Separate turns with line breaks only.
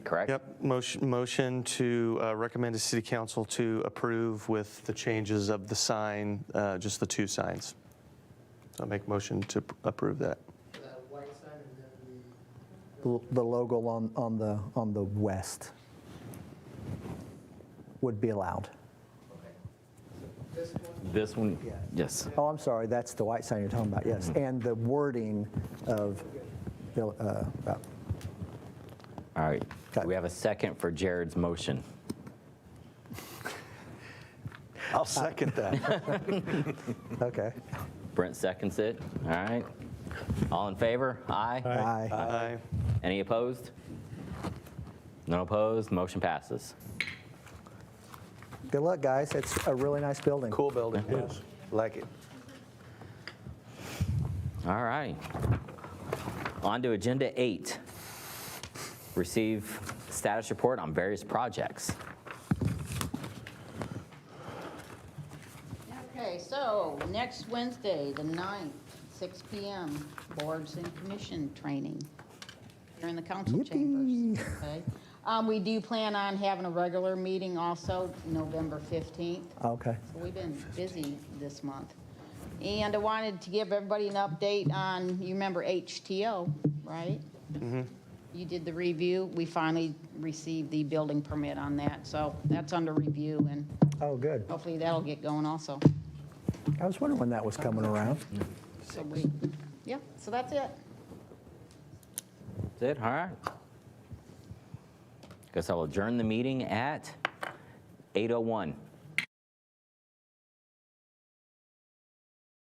correct?
Yep, motion, motion to uh, recommend to city council to approve with the changes of the sign, uh, just the two signs. So I make motion to p- approve that.
L- The logo on, on the, on the west would be allowed.
This one?
Yeah.
Yes.
Oh, I'm sorry, that's the white sign you're talking about, yes. And the wording of, the, uh, uh,
All right.
Okay.
We have a second for Jared's motion.
I'll second that.
okay.
Brent seconds it. All right. All in favor? Aye.
Aye.
Aye.
Any opposed? No opposed. Motion passes.
Good luck, guys. It's a really nice building.
Cool building. Yes. Like it.
All right. On to agenda eight. Receive status report on various projects.
Okay, so next Wednesday, the 9th, 6 PM, boards and commission training here in the council chambers. okay? Um, We do plan on having a regular meeting also, November 15th.
Okay.
So We've been busy this month. And I wanted to give everybody an update on, you remember HTO, right? You did the review. We finally received the building permit on that, so that's under review, and
Oh, good.
hopefully that'll get going also.
I was wondering when that was coming around.
So we, yeah, so that's it.
That's it, all right. oh Guess I'll adjourn the meeting at 8:01.